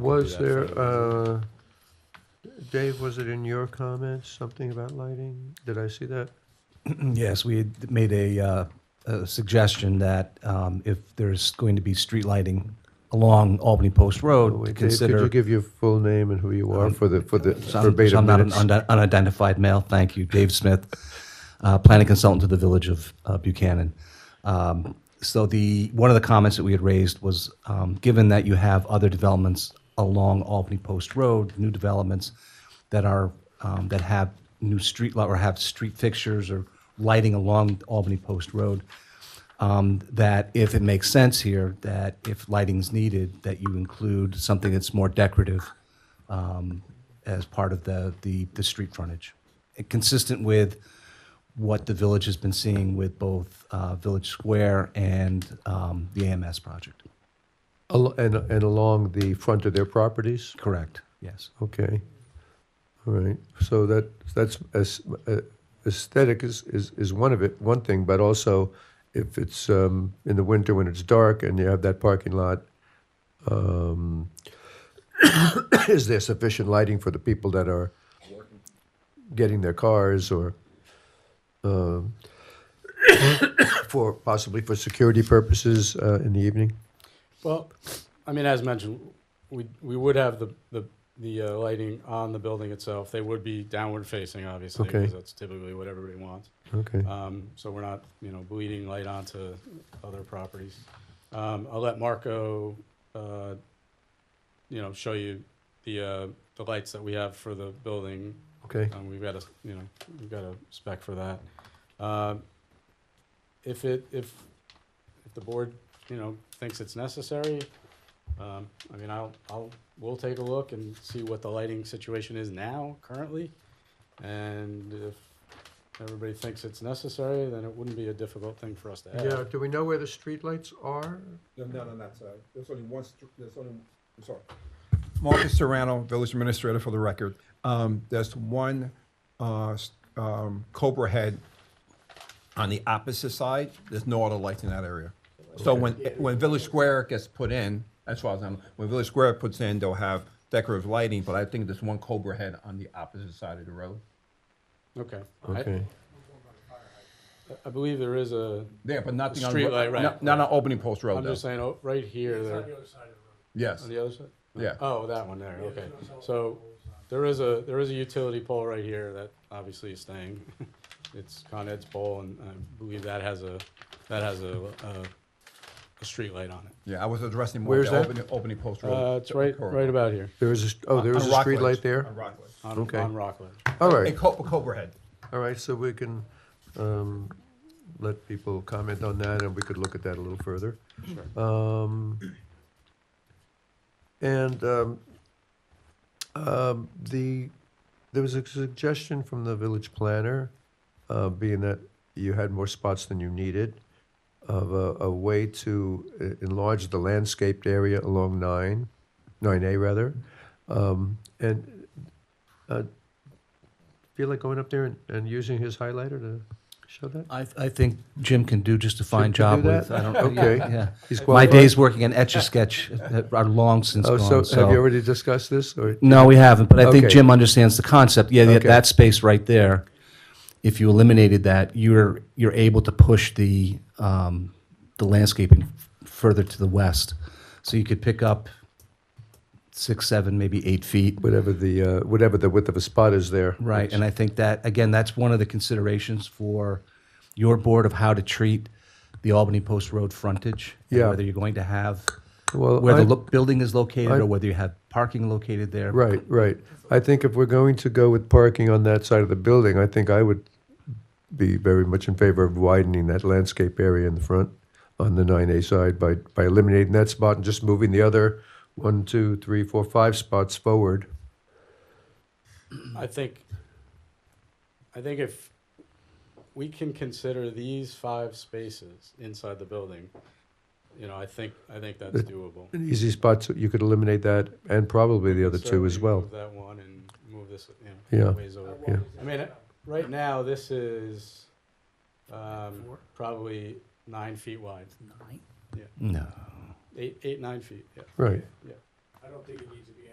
Was do there, that uh, Dave, was it in your comments, something about lighting? Did I see that? Yes, we had made a, uh, a suggestion that um, if there's going to be street lighting along Albany Post Oh, Road, to wait, Dave, could you consider. give your full name and who you are for the, for the So I'm so verbatim I'm not an minutes? unde- unidentified male, thank you, Dave Smith, uh, planning consultant to the Village of uh, Buchanan. Um, So the, one of the comments that we had raised was, um, given that you have other developments along Albany Post Road, new developments that are, um, that have new street, li- or have street fixtures or lighting along Albany Post Road, um, that if it makes sense here, that if lighting's needed, that you include something that's more decorative um, as part of the, the, the street frontage. And Consistent with what the village has been seeing with both uh, Village Square and um, the AMS project. Al- And, and along the front of their properties? Correct, yes. Okay. All right. So that, that's, as- uh, aesthetic is, is, is one of it, one thing, but also if it's um, in the winter when it's dark and you have that parking lot, um, is there sufficient lighting for the people that are getting their cars or um, for, possibly for security purposes uh, in the evening? Well, I mean, as mentioned, we, we would have the, the, the uh, lighting on the building itself. They would be downward facing, obviously, Okay. because that's typically what everybody wants. Okay. Um, so we're not, you know, bleeding light onto other properties. Um, I'll let Marco, uh, you know, show you the, uh, the lights that we have for the building. Okay. Um, we've got a, you know, we've got a spec for that. Um, If it, if, if the board, you know, thinks it's necessary, um, I mean, I'll, I'll, we'll take a look and see what the lighting situation is now, currently. And if everybody thinks it's necessary, then it wouldn't be a difficult thing for us to Yeah, add. do we know where the streetlights are? No, no, no, not sorry. There's only one, str- there's only, I'm sorry. Marcus Serrano, Village Administrator for the record. Um, there's one, uh, s- um, Cobra Head on the opposite side. There's no other lights in that area. So when, when Village Square gets put in, as far as I'm, when Village Square puts in, they'll have decorative lighting, but I think there's one Cobra Head on the opposite side of the road. Okay. I- Okay. I believe there is a, There, but nothing on. Streetlight, right, Not, not on Opening Post Road I'm though. just saying, oh, right here, there, Yes, on the other side? yeah. Oh, that one there, okay. So there is a, there is a utility pole right here that obviously is staying. It's Con Ed's pole and I believe that has a, that has a, a, a street light on it. Yeah, I was addressing more Where's the that? opening, opening post road. Uh, it's right, corridor. right about here There is a, oh, there is a On Rockledge. streetlight there? On Rockledge. on, Okay. on Rockland. All right. And Co- Cobra Head. All right, so we can um, let people comment on that, and we could look at that a little further. Um, And um, um, the, there was a suggestion from the village planner, uh, being that you had more spots than you needed, of a, a way to uh, enlarge the landscaped area along nine, nine A rather. Um, And uh, feel like going up there and, and using his highlighter to show that? I, I think Jim can do just a Jim can fine do job with, that? I don't. Okay. yeah. He's My qualified? days working on Etch-a-Sketch are long since Oh, so gone, have you so. already discussed this or? No, we haven't, but I think Okay. Jim understands the concept. Yeah, that- Okay. that space right there, if you eliminated that, you're, you're able to push the, um, the landscaping further to the west. So you could pick up six, seven, maybe eight feet. Whatever the, uh, whatever the width of a spot is there. Right, and I think that, again, that's one of the considerations for your board of how to treat the Albany Post Road frontage. and Yeah. Whether you're going to have, Well, where I- the lo- building is located, I- or whether you have parking located there. Right, right. I think if we're going to go with parking on that side of the building, I think I would be very much in favor of widening that landscape area in the front on the nine A side by, by eliminating that spot and just moving the other one, two, three, four, five spots forward. I think, I think if we can consider these five spaces inside the building, you know, I think, I think that's doable. An easy spot, so you could eliminate that and probably the other two as Certainly well. Move that one and move this, you Yeah. know, ways over. Yeah. I mean, uh, right now, this is, um, probably nine feet wide, No. eight, eight, nine feet, yeah. Right. Yeah. I don't think it needs to be